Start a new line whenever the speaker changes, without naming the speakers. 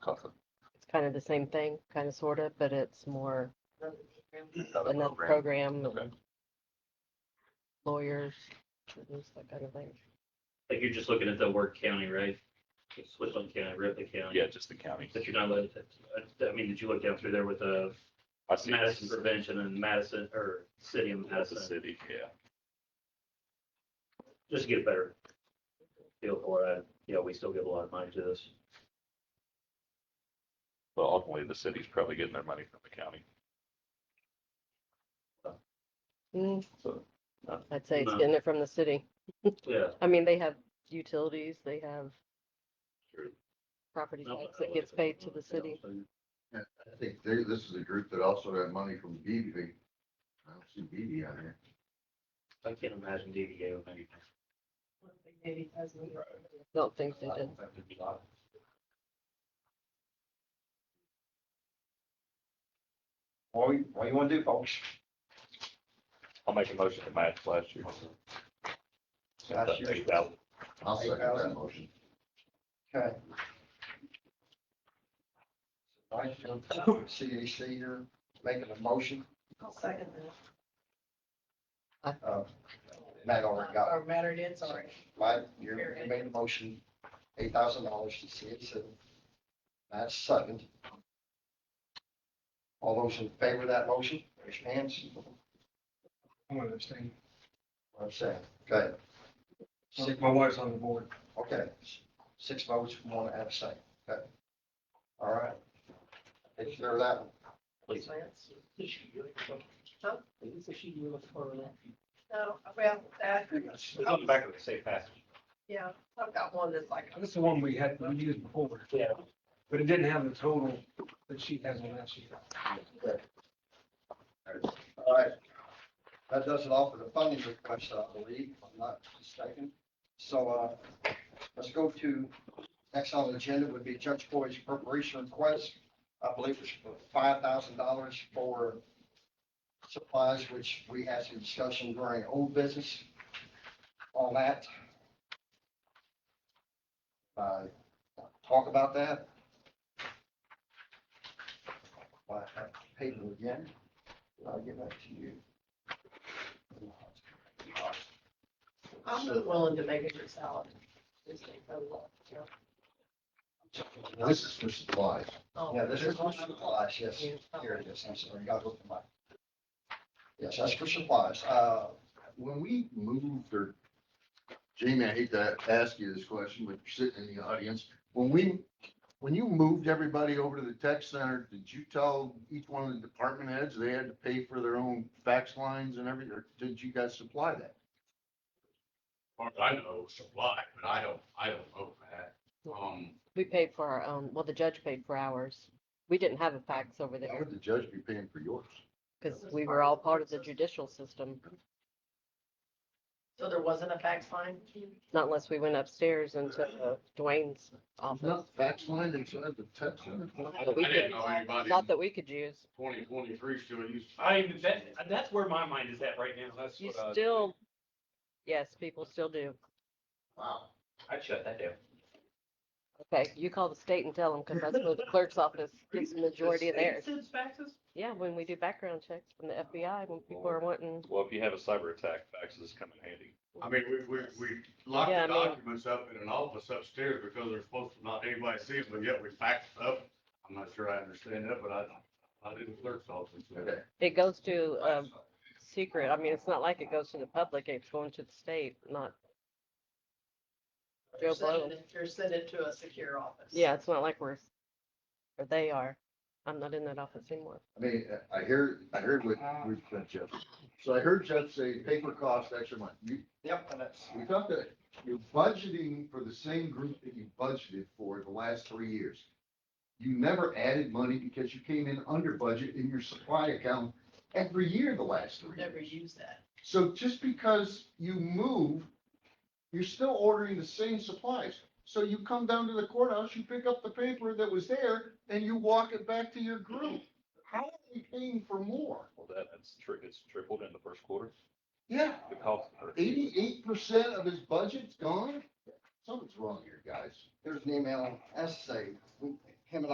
kind of the same thing, kind of sort of, but it's more another
program.
program
Okay.
and lawyers, attorneys, that kind of thing.
Like you're just looking at the work county, right? Switzerland County, Ripley County.
Yeah, just the county.
But you're not looking at, I mean, did you look down through there with the
I see
Madison
this
Prevention and Madison, or City of
as a
Madison?
city, yeah.
Just to get a better feel for it. Yeah, we still give a lot of money to this.
Well, ultimately, the city's probably getting their money from the county.
Mm,
So,
I'd say it's
No.
getting it from the city.
Yeah.
I mean, they have utilities, they have
True.
property tax that gets paid to the city.
Yeah, I think they, this is a group that also got money from BB. I don't see BB on here.
I can't imagine DVA with anything.
Don't think they did.
What, we- what you wanna do, folks?
I'll make a motion to match last year.
Last year's-
Eight thousand.
I'll second that motion.
Okay. Vice Chancellor, CAC, you're making a motion.
I'll second
Uh, Matt already
that.
got
Or
it.
mattered in, sorry.
Right, you you made a motion, eight thousand dollars to CAC. That's second. All those in favor of that motion, raise your hands.
I'm gonna abstain.
I'm saying, okay. Six-
My wife's on the board.
Okay, six votes, one abstain, okay. All right. Take care of that one.
Please.
No, well, that,
on the back of the safe pass.
yeah, I've got one that's like,
This is the one we had, we used before.
Yeah.
But it didn't have the total that she has on that sheet.
All right. That does it all for the funding request, I believe, if I'm not mistaken. So, uh, let's go to, next on the agenda would be Judge Boyd's appropriation request. I believe it's for five thousand dollars for supplies, which we had some discussion during old business on that. Uh, talk about that. I have paper again. I'll get back to you.
I'm not willing to make it your salad. Just take the look, you know.
This is for supplies.
Oh,
Yeah, this is for
there's one.
supplies, yes. Here it is, I'm sorry, got to open my. Yes, that's for supplies. Uh,
When we moved or, Jamie, I hate to ask you this question, but you're sitting in the audience. When we, when you moved everybody over to the tech center, did you tell each one of the department heads they had to pay for their own fax lines and everything? Or did you guys supply that?
far as I know, supply, but I don't, I don't know that. Um,
We paid for our own, well, the judge paid for ours. We didn't have a fax over
How
there
would the judge be paying for yours?
because we were all part of the judicial system.
So there wasn't a fax line?
Not unless we went upstairs into uh, Dwayne's office.
Not fax line inside the tech center?
I
we
didn't
did.
know anybody
Not
in
that we could use.
twenty twenty-three still used.
I, that, that's where my mind is at right now. That's
You
what uh, I,
still, yes, people still do.
wow.
I'd shut that down.
Okay, you call the state and tell them because that's where the clerk's office gets the majority of theirs.
Since faxes?
Yeah, when we do background checks from the FBI, when people are wanting,
Well, if you have a cyber attack, faxes come in handy.
I mean, we, we, we locked
Yeah, I
the
mean-
documents up in an office upstairs because they're supposed to not anybody see them, but yet we faxed up. I'm not sure I understand that, but I, I didn't clerk's office.
Okay.
it goes to a
Um,
secret. I mean, it's not like it goes to the public, it's going to the state, not, Joe
You're
Blow.
sending it- You're sending it to a secure office.
yeah, it's not like we're, or they are. I'm not in that office anymore.
I mean, I hear, I heard what, we Jeff. So I heard Jeff say paper costs extra money. You,
Yep, and that's,
we talked that you're budgeting for the same group that you budgeted for the last three years. You never added money because you came in under budget in your supply account every year the last three
Never
years.
use that.
So just because you move, you're still ordering the same supplies. So you come down to the courthouse, you pick up the paper that was there, and you walk it back to your group. How are we paying for more?
Well, that, it's tri, it's tripled in the first quarter.
Yeah,
The cost. per-
eighty-eight percent of his budget's gone? Something's wrong here, guys.
there's an email, as I say, we